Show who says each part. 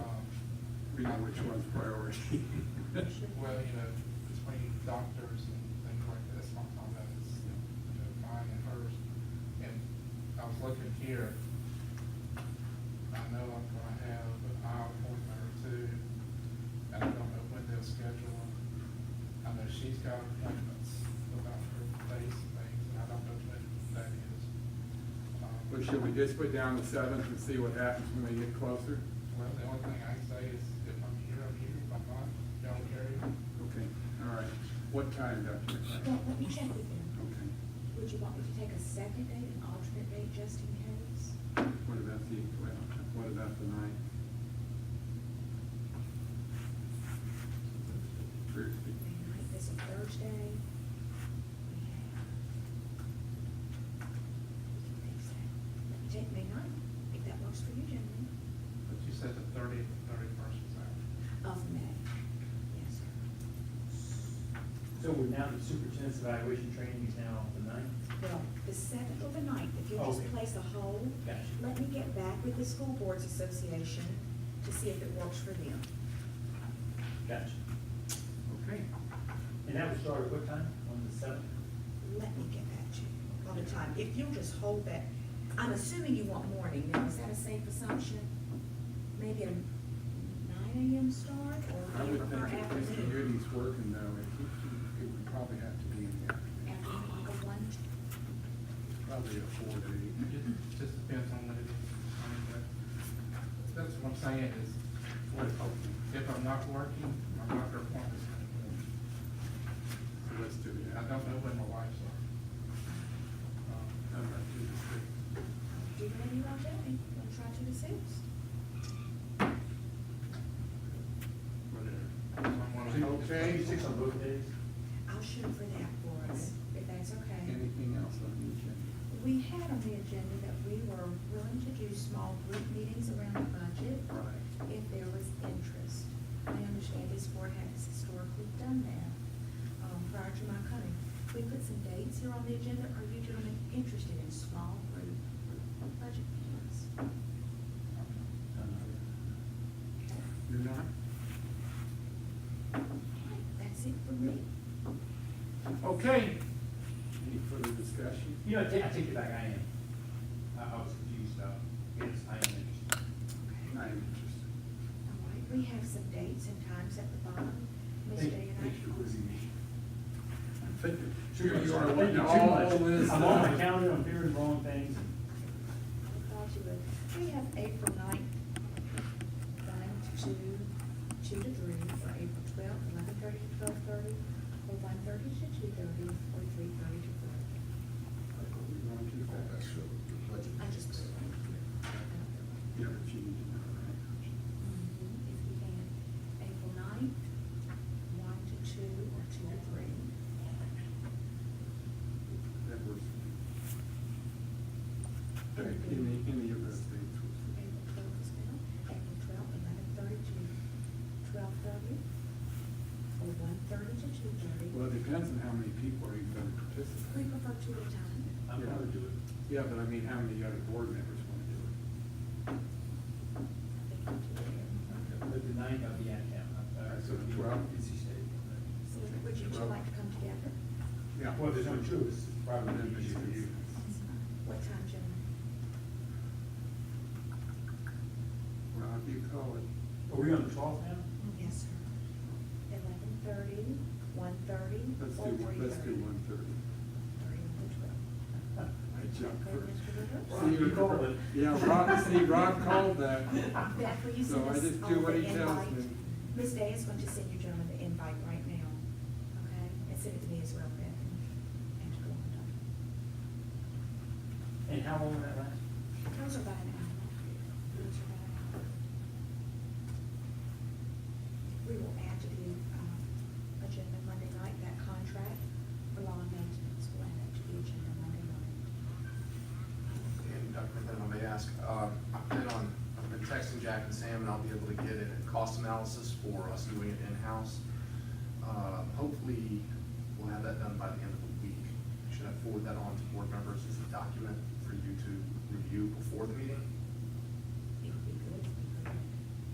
Speaker 1: know which one's priority.
Speaker 2: Well, you know, between doctors and things like this, my time that is, you know, mine and hers. And I was looking here, I know I'm gonna have an eye appointment or two, and I don't know when they'll schedule them. I know she's got appointments about her face and things, and I don't know when that is. Um,
Speaker 1: Well, should we just put down the seventh and see what happens when they get closer?
Speaker 2: Well, the only thing I can say is if I'm here, I'm here, if I'm not, don't carry it.
Speaker 1: Okay, all right. What time, Dr.
Speaker 3: Well,
Speaker 1: McLean?
Speaker 3: let me check with them.
Speaker 1: Okay.
Speaker 3: Would you want me to take a second date, an alternate date, just in case?
Speaker 1: What about the, well, what about the ninth? Thursday.
Speaker 3: The ninth is a Thursday. We have- we can fix that. Let me take May ninth, if that works for you, gentlemen,
Speaker 2: But you said the thirtieth, and thirty-first was out.
Speaker 3: of May. Yes, sir.
Speaker 4: So we're now, the superintendent's evaluation training is now on the ninth?
Speaker 3: Well, the seventh or the ninth, if you'll just
Speaker 4: Okay.
Speaker 3: place a hold.
Speaker 4: Gotcha.
Speaker 3: Let me get back with the School Boards Association to see if it works for them.
Speaker 4: Gotcha.
Speaker 1: Okay.
Speaker 4: And that would start at what time? On the seventh?
Speaker 3: Let me get back to you on the time. If you'll just hold that, I'm assuming you want morning now. Is that a safe assumption? Maybe a nine AM start
Speaker 1: I
Speaker 3: or do you
Speaker 1: would think
Speaker 3: prefer
Speaker 1: if Mr.
Speaker 3: afternoon?
Speaker 1: Goody's working though, it, it would probably have to be in the afternoon,
Speaker 3: Afternoon, like a one?
Speaker 1: probably a four to
Speaker 2: It
Speaker 1: eight.
Speaker 2: just depends on what it is. I mean, that, that's what I'm saying is, what, if I'm not working, my doctor appointment's in the morning.
Speaker 1: So let's do
Speaker 2: And
Speaker 1: it.
Speaker 2: I don't know when my wife's are. Um,
Speaker 1: How about two to three?
Speaker 3: Do you want me to tell me? I'll try to the six.
Speaker 1: Whatever.
Speaker 2: so Um, I'm gonna
Speaker 1: Two,
Speaker 2: help-
Speaker 1: okay,
Speaker 4: Six on both days?
Speaker 3: I'll shoot for that for us, if that's okay.
Speaker 1: Anything else on the agenda?
Speaker 3: We had on the agenda that we were willing to do small group meetings around the budget.
Speaker 1: Right.
Speaker 3: if there was interest. I understand this board has historically done that, um, prior to my coming. We put some dates here on the agenda, are you gentlemen interested in small group budget meetings?
Speaker 4: Um,
Speaker 1: You're not?
Speaker 3: That's it for me.
Speaker 1: Okay. Any further discussion?
Speaker 4: You know, I take, I take it back, I am. I, I was confused about, yes, I am interested.
Speaker 1: I am interested.
Speaker 3: All right, we have some dates and times at the bottom. Ms.
Speaker 4: Thank-
Speaker 3: Day and I.
Speaker 4: thank you for quizzing me.
Speaker 1: I'm thinking,
Speaker 4: Too much.
Speaker 1: you are
Speaker 4: Thank
Speaker 1: wanting
Speaker 4: you too
Speaker 1: all
Speaker 4: much.
Speaker 1: this.
Speaker 4: I'm on my
Speaker 1: uh,
Speaker 4: calendar, I'm hearing wrong things.
Speaker 3: I thought you would. We have April ninth, nine to two, two to three, or April twelfth, eleven thirty to twelve thirty, or one thirty to two thirty, or three thirty to four.
Speaker 1: We're going too fast.
Speaker 3: I just put it right here.
Speaker 1: Yeah, but you need to know, right?
Speaker 3: Mhm, If you can, April ninth, one to two, or two to three.
Speaker 1: That works. Any, any of those things.
Speaker 3: April twelfth is now, April twelfth, eleven thirty to twelve thirty, or one thirty to two thirty.
Speaker 1: Well, it depends on how many people are even going to
Speaker 3: We
Speaker 1: participate.
Speaker 3: prefer two at a time.
Speaker 4: I'm gonna do it.
Speaker 1: Yeah, but I mean, how many other board members want to do it?
Speaker 4: But the ninth, I'll be out of town. Uh, so it'll be
Speaker 1: Twelve.
Speaker 4: NC State.
Speaker 3: So would you two like to come together?
Speaker 1: Yeah.
Speaker 4: Well, there's only two of us, it's probably
Speaker 1: Then
Speaker 4: gonna be
Speaker 1: it's
Speaker 4: easier for you.
Speaker 3: What time, gentlemen?
Speaker 1: Well, if you call it,
Speaker 4: Are we on the twelfth now?
Speaker 3: Yes, sir. Eleven thirty, one thirty,
Speaker 1: let's
Speaker 3: or
Speaker 1: do,
Speaker 3: three
Speaker 1: let's do
Speaker 3: thirty?
Speaker 1: one thirty.
Speaker 3: Three to twelve.
Speaker 1: I jumped
Speaker 3: Okay,
Speaker 1: first.
Speaker 3: Mr. Rivers?
Speaker 1: See,
Speaker 4: You called it.
Speaker 1: Yeah, Rob, see, Rob called that.
Speaker 3: Beth, will you
Speaker 1: So
Speaker 3: send
Speaker 1: I
Speaker 3: us
Speaker 1: just
Speaker 3: all
Speaker 1: do what
Speaker 3: the
Speaker 1: he tells
Speaker 3: invite?
Speaker 1: me.
Speaker 3: Ms. Day is going to send you gentlemen the invite right now, okay? And send it to me as well, Beth. And to go on, Dr.
Speaker 4: And how long will that last?
Speaker 3: Those are by an hour. Those are by an hour. We will add to the, um, agenda Monday night, that contract for law and maintenance, we'll add that to the agenda Monday night.
Speaker 5: And Dr. McLean, I may ask, uh, I've been on, I've been texting Jack and Sam, and I'll be able to get a cost analysis for us doing it in-house. Uh, Hopefully, we'll have that done by the end of the week. Should I forward that on to board members as a document for you to review before the meeting?